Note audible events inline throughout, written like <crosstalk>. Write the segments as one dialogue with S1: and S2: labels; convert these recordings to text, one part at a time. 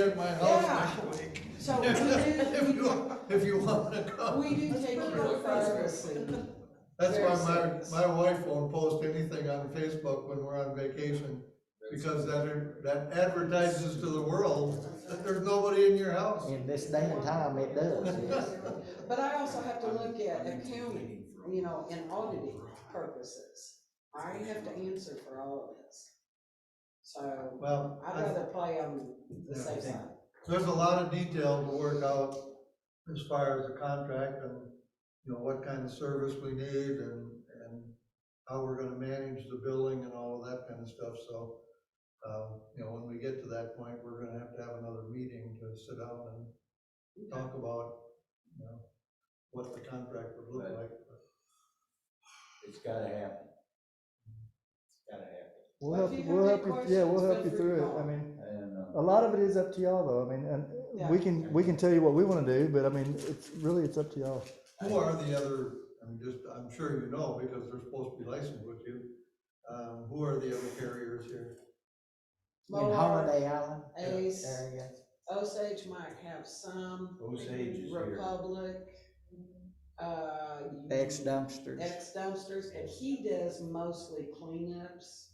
S1: at my house next week.
S2: So
S1: <laughs>
S2: we
S1: If
S2: do,
S1: you, if you wanna go.
S2: we do take your privacy.
S1: That's
S2: Very
S1: why
S2: serious.
S1: my, my wife won't post anything on Facebook when we're on vacation, because that, that advertises to the world that there's nobody in your house.
S3: In this day and time, it does, yes.
S2: But I also have to look at accounting, you know, in auditing purposes. I have to answer for all of this. So
S1: Well,
S2: I'd rather play on the safe side.
S1: there's a lot of detail to work out as far as the contract and, you know, what kind of service we need and, and how we're gonna manage the building and all of that kind of stuff, so, um, you know, when we get to that point, we're gonna have to have another meeting to sit down and talk about, you know, what the contract would look
S4: Right.
S1: like.
S4: It's gotta happen. It's gotta happen.
S3: We'll
S2: Well,
S3: help,
S2: if
S3: you-
S2: you
S3: we'll
S2: have
S3: help
S2: any
S3: you, yeah, we'll
S2: questions,
S3: help you
S2: feel free to
S3: through it, I
S2: call.
S3: mean,
S4: I don't
S3: a
S4: know.
S3: lot of it is up to y'all though, I mean, and we
S2: Yeah.
S3: can, we can tell you what we wanna do, but I mean, it's really, it's up to y'all.
S1: Who are the other, I'm just, I'm sure you know, because they're supposed to be licensed with you, um, who are the other carriers here?
S2: Lord,
S3: Island
S2: uh,
S3: uh,
S2: Ace,
S3: area.
S2: Osage might have some.
S4: Osage is here.
S2: Republic, uh.
S3: Ex dumpsters.
S2: ex dumpsters, and he does mostly cleanups.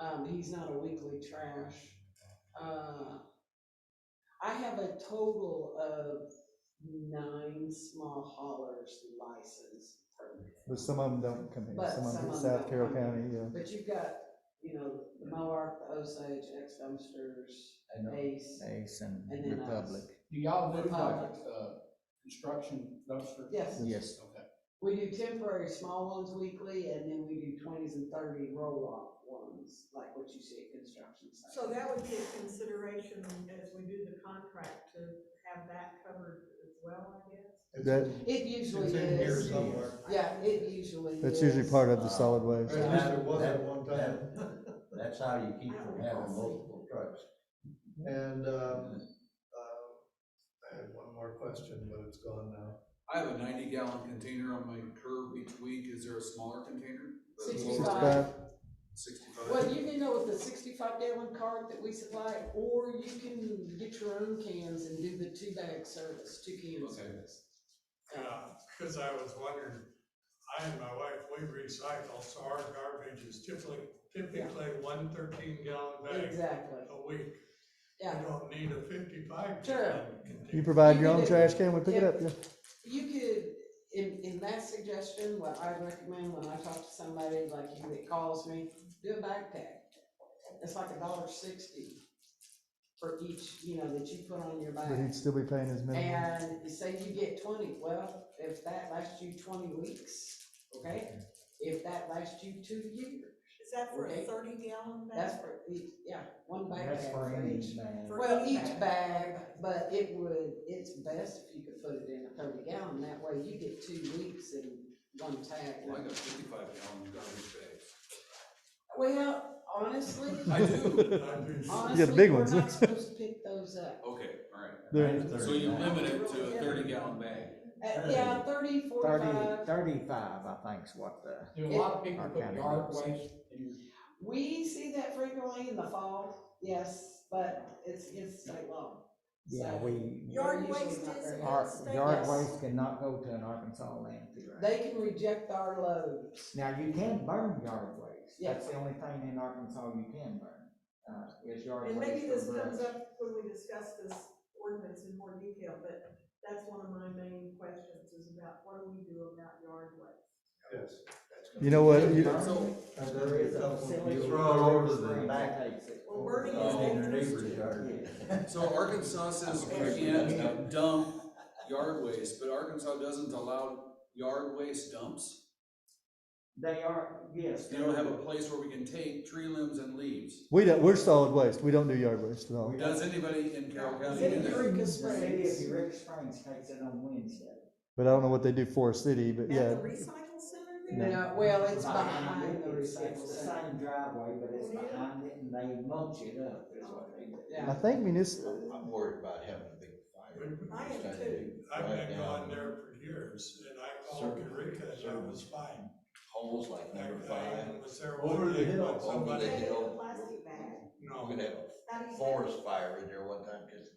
S2: Um, he's not a weekly trash. Uh, I have a total of nine small haulers licensed permit.
S3: But some of them don't come here,
S2: But
S3: some of
S2: some
S3: them
S2: of
S3: from
S2: 'em
S3: South
S2: don't
S3: Carroll
S2: come here.
S3: County, yeah.
S2: But you've got, you know, the Moark, the Osage, ex dumpsters,
S4: I know.
S2: Ace,
S3: Ace and
S2: and then us.
S5: Do y'all do like,
S2: Republic.
S5: uh, construction dumpster?
S2: Yes.
S3: Yes.
S5: Okay.
S2: We do temporary small ones weekly, and then we do twenties and thirty roll-off ones, like what you see at construction sites.
S6: So that would be a consideration as we do the contract to have that covered as well, I guess?
S1: It's-
S3: That-
S2: It usually
S1: It's in here
S2: is.
S1: somewhere.
S2: Yeah, it usually is.
S3: That's usually part of the
S4: Uh,
S3: solid waste.
S1: Or at least it was at
S4: That-
S1: one time.
S4: That's how you keep from having multiple trucks.
S1: And, um, uh, I had one more question, but it's gone now.
S7: I have a ninety gallon container on my curb each week, is there a smaller container?
S2: Sixty-five.
S7: Sixty-five?
S2: Well, you can go with the sixty-five gallon cart that we supply, or you can get your own cans and do the two bag service, two can
S7: Okay.
S2: service.
S8: Yeah, because uh, I was wondering, I and my wife, we recycle, so our garbage is typically, typically one thirteen gallon bag
S2: Uh, Exactly,
S8: a week. We
S2: yeah.
S8: don't need a fifty-five
S2: Sure.
S8: gallon
S3: You
S8: container.
S3: provide
S2: You
S3: your
S2: can
S3: own
S2: do-
S3: trash can, we pick it up, yeah.
S2: You could, in, in that suggestion, what I recommend when I talk to somebody like you that calls me, do a backpack. It's like a dollar sixty for each, you know, that you put on your back.
S3: But he'd still be paying his minimum.
S2: And you say you get twenty, well, if that lasts you twenty weeks, okay? If that lasts you two years,
S6: Is that for a
S2: Okay.
S6: thirty gallon bag?
S2: that's for each, yeah, one bag
S3: That's
S2: for each.
S6: For
S2: Well, each bag, but it would, it's best if you could put it in a thirty gallon, that way you get two weeks and one
S7: Well, I
S2: tag.
S7: got fifty-five gallon garbage bags.
S2: Well, honestly,
S7: I do,
S8: <laughs>
S2: honestly,
S3: big
S2: we're
S3: ones.
S2: not supposed to pick those up.
S7: okay, all
S3: They're-
S7: right. So you limit it to a thirty gallon bag.
S2: Uh, yeah, thirty, forty-five,
S3: thirty-five, I think is what the.
S5: Do a lot of people
S3: Our
S5: put
S3: county
S5: yard
S3: does.
S5: waste in
S2: we see that frequently in the fall, yes, but it's against state law. So-
S3: we,
S6: Yard
S2: They're usually
S6: waste
S2: not
S6: is
S2: very-
S6: Our
S2: yard waste
S3: cannot go to an Arkansas landfill.
S2: They can reject our loads.
S3: Now, you can burn yard waste,
S2: That's
S3: the only thing in Arkansas you can burn, uh, is yard
S6: And maybe this comes up when we discuss this ordinance in more detail, but that's one of my main questions is about what do we do about yard waste?
S1: Yes.
S3: You know what, you,
S7: So,
S1: And there is something you throw
S3: all
S1: all over the,
S6: Well, wording is
S4: Oh, in your
S6: dangerous
S4: neighbor's
S6: too.
S4: yard.
S7: so Arkansas says you can't dump yard waste, but Arkansas doesn't allow yard waste dumps?
S9: They are, yes.
S7: They don't have a place where we can take tree limbs and leaves.
S3: we don't, we're solid waste, we don't do yard waste at all.
S7: Does anybody in Carroll
S9: The
S7: County do
S9: city of
S7: that?
S9: Eureka
S2: Eureka
S9: Springs, the
S2: Springs.
S9: city of Eureka Springs takes it on Wednesday.
S3: But I don't know what they do for a city, but
S6: At
S3: yeah,
S6: the recycle center there?
S2: No, well, it's
S9: Behind
S2: behind
S9: it,
S2: the
S9: it's-
S2: recycle
S9: It's the
S2: center.
S9: same driveway, but it's
S6: Yeah.
S9: behind it and they mulch it up is what they do.
S2: Yeah.
S3: I think municipal,
S4: I'm I'm worried about having a big fire.
S6: I am
S4: Trying to
S6: too.
S4: drive
S8: I've been
S4: down
S8: gone there for years, and I called
S4: Circle.
S8: Eureka, and it was fine.
S4: Holes like
S8: I,
S4: number
S8: I
S4: five.
S8: was there
S4: Over
S8: one
S4: the
S8: day,
S4: hill,
S8: but
S4: over the
S8: somebody,
S6: They
S4: hill.
S6: plastic bag.
S8: no.
S4: We'd have
S6: How do
S4: a
S6: you handle-
S4: forest fire in there one time, cause